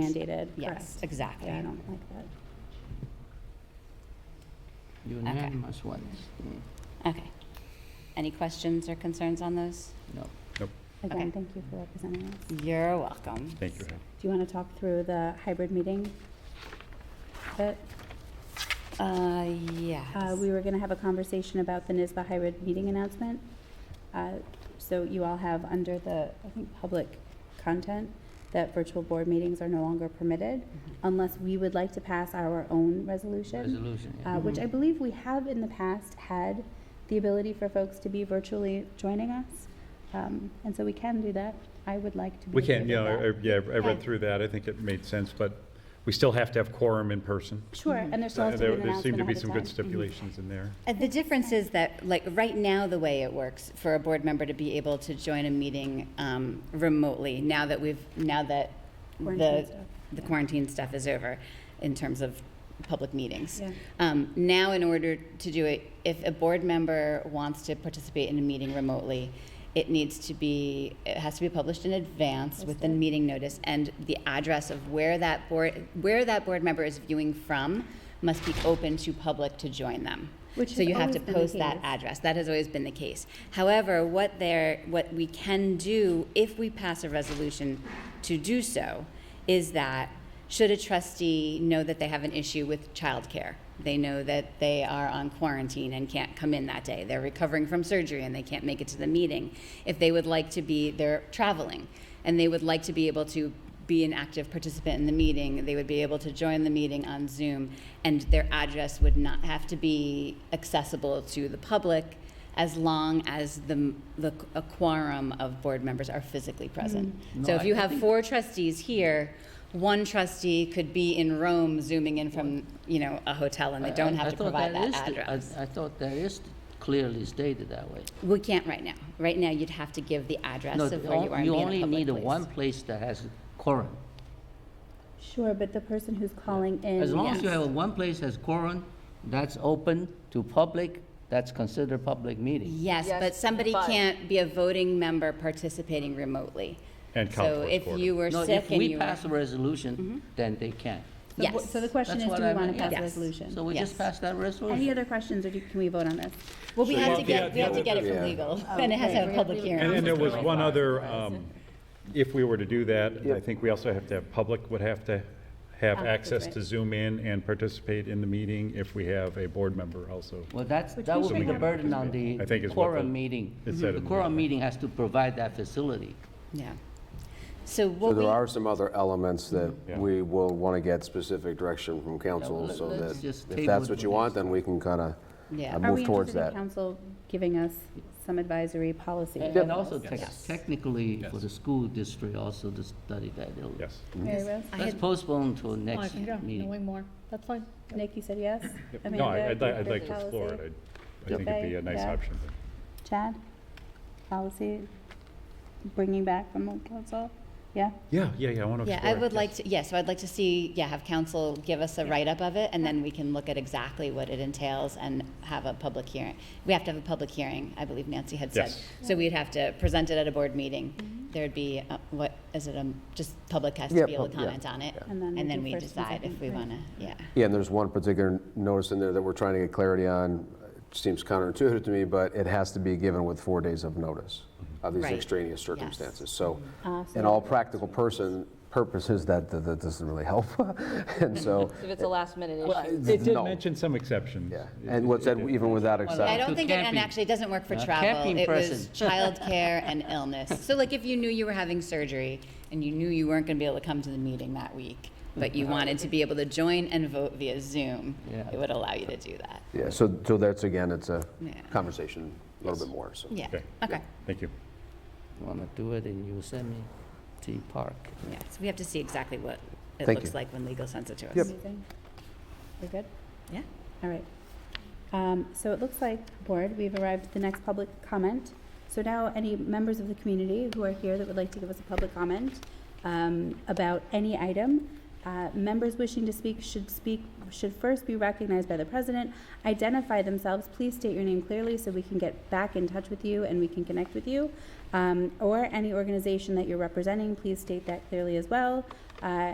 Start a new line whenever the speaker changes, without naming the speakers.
mandated,
Yes,
correct.
exactly.
Yeah, I don't like that.
Unanimous ones. Mm,
Okay. Any questions or concerns on those?
No.
Again,
Okay.
thank you for representing us.
You're welcome.
Thank you. Ann.
Do you want to talk through the hybrid meeting? But,
Uh,
uh,
yes.
we were going to have a conversation about the NISBA hybrid meeting announcement. Uh, So you all have under the, I think, public content, that virtual board meetings are no longer permitted
Mm-hmm.
unless we would like to pass our own resolution,
Resolution, yeah.
Um,
uh, which I believe we have in the past had the ability for folks to be virtually joining us. Um, And so we can do that. I would like to be.
We
okay
can,
with
yeah,
that.
I- I- yeah, I
Okay.
read through that, I think it made sense, but we still have to have quorum in person.
Sure, and there still
Uh,
has to be
There
an
there seem
announcement
to be
ahead of
some good
time. Mm-hmm.
stipulations in there.
Uh, The difference is that, like, right now, the way it works for a board member to be able to join a meeting um, remotely, now that we've, now that
Quarantine
the,
stuff,
the quarantine stuff is over in terms of public meetings.
Yeah.
Um, Now, in order to do it, if a board member wants to participate in a meeting remotely, it needs to be, it has to be published in advance with the meeting notice, and the address of where that board, where that board member is viewing from must be open to public to join them.
Which
So
has
you have to
always been the
post that
case.
address. That has always been the case. However, what there, what we can do if we pass a resolution to do so is that should a trustee know that they have an issue with childcare, they know that they are on quarantine and can't come in that day, they're recovering from surgery and they can't make it to the meeting, if they would like to be, they're traveling, and they would like to be able to be an active participant in the meeting, they would be able to join the meeting on Zoom, and their address would not have to be accessible to the public as long as the, the a quorum of board members are physically present. So
No,
if
I-
you have four trustees here, one trustee could be in Rome zooming in from, you know, a hotel, and they
I-
don't
I- I
have to
thought
provide that
is th- I-
address.
I thought that is clearly stated that way.
We can't right now. Right now, you'd have to give the address
No,
of where you are and be in a
You
public
only need a
place.
one place that has quorum.
Sure, but the person who's calling in.
As long as you
yes.
have a one place that's quorum, that's open to public, that's considered public meeting.
Yes,
Yes,
but somebody
but-
can't be a voting member participating remotely.
And count
So
towards
if
quorum.
you were
No,
sick
if
and
we
you were. Mm-hmm.
pass a resolution, then they can.
So wh-
yes.
So the question
That's
is,
what
do we
I
want
meant,
to pass a
yes.
So
resolution?
we
Yes.
just passed that
Any
resolution.
other questions, or do- can we vote on this?
Well, we
So
have
well,
to
the
get,
oth-
we have to
the
get it from legal, and it has to have a public
And then
hearing.
there was one other, um, if we were to do that, I think we also have to have, public would have to have
Ah, that's
access
right.
to Zoom in and participate in the meeting if we have a board member also.
Well, that's,
Which
that
we
would
should
be the
have.
burden on the
I think is what the-
quorum meeting.
it
The
said in the
quorum
document.
meeting has to provide that facility.
Yeah. So
So
what we,
there are some other elements that
Mm-hmm. Yeah.
we will want to get specific direction from council,
let-
so
let's
that
just
if
table
that's
it
what
for
you
next
want, then we can kind of
Yeah. Are
Are
move
we
towards
interested in
that.
council giving us some advisory policy?
And and also tec- technically, for
Yes.
the school district also to study that. it'll-
Yes.
Mary Rose?
I
Let's
had,
postpone till
Oh, I
next
can go,
meeting.
knowing more, that's fine.
Nick, you said yes?
No, I-
Amanda,
I'd li- I'd like to
policy?
explore it. I- I think it'd be a nice
Yeah.
option.
Chad? Policy, bringing back from the council? Yeah?
Yeah, yeah, yeah, I want to
yeah,
explore.
I
it,
would
yes.
like to, yeah, so I'd like to see, yeah, have council give us a write-up of it, and then we can look at exactly what it entails and have a public hearing. We have to have a public hearing, I believe Nancy had said.
Yes.
So we'd have to present it at a board meeting.
Mm-hmm.
There'd be, uh, what, is it, um, just public has
Yeah,
to be able to
pub- yeah,
comment on it?
yeah.
And then we
And then
do
we
first and
decide if
second,
we
right.
wanna, yeah.
Yeah, and there's one particular notice in there that we're trying to get clarity on. It Seems counterintuitive to me, but it has to be given with four days of notice
Mm-hmm.
of these
Right.
extraneous
Yes.
circumstances. So
Ah, so
in all practical person, purposes, that, that that doesn't really help. And so,
If it's a last minute issue.
Well,
It did
no.
mention some exceptions.
yeah, and what's that, even without
I
exception.
don't
to
think it, and
camping.
actually, it doesn't work for
Uh,
travel.
camping
It was
person.
childcare and illness. So like, if you knew you were having surgery and you knew you weren't gonna be able to come to the meeting that week, but you wanted to be able to join and vote via Zoom,
Yeah.
it would allow you to do that.
Yeah, so, so that's, again, it's a
Yeah.
conversation a little bit more, so.
Yeah,
Okay.
okay.
Thank you.
Want to do it in Yosemite Park?
Yeah, so we have to see exactly what it
Thank
looks
you.
like when legal sends it to us.
Amazing. We're good?
Yeah.
All right. Um, So it looks like, Board, we've arrived at the next public comment. So now, any members of the community who are here that would like to give us a public comment um, about any item, uh, members wishing to speak should speak, should first be recognized by the president, identify themselves, please state your name clearly so we can get back in touch with you and we can connect with you, Um, or any organization that you're representing, please state that clearly as well. Uh,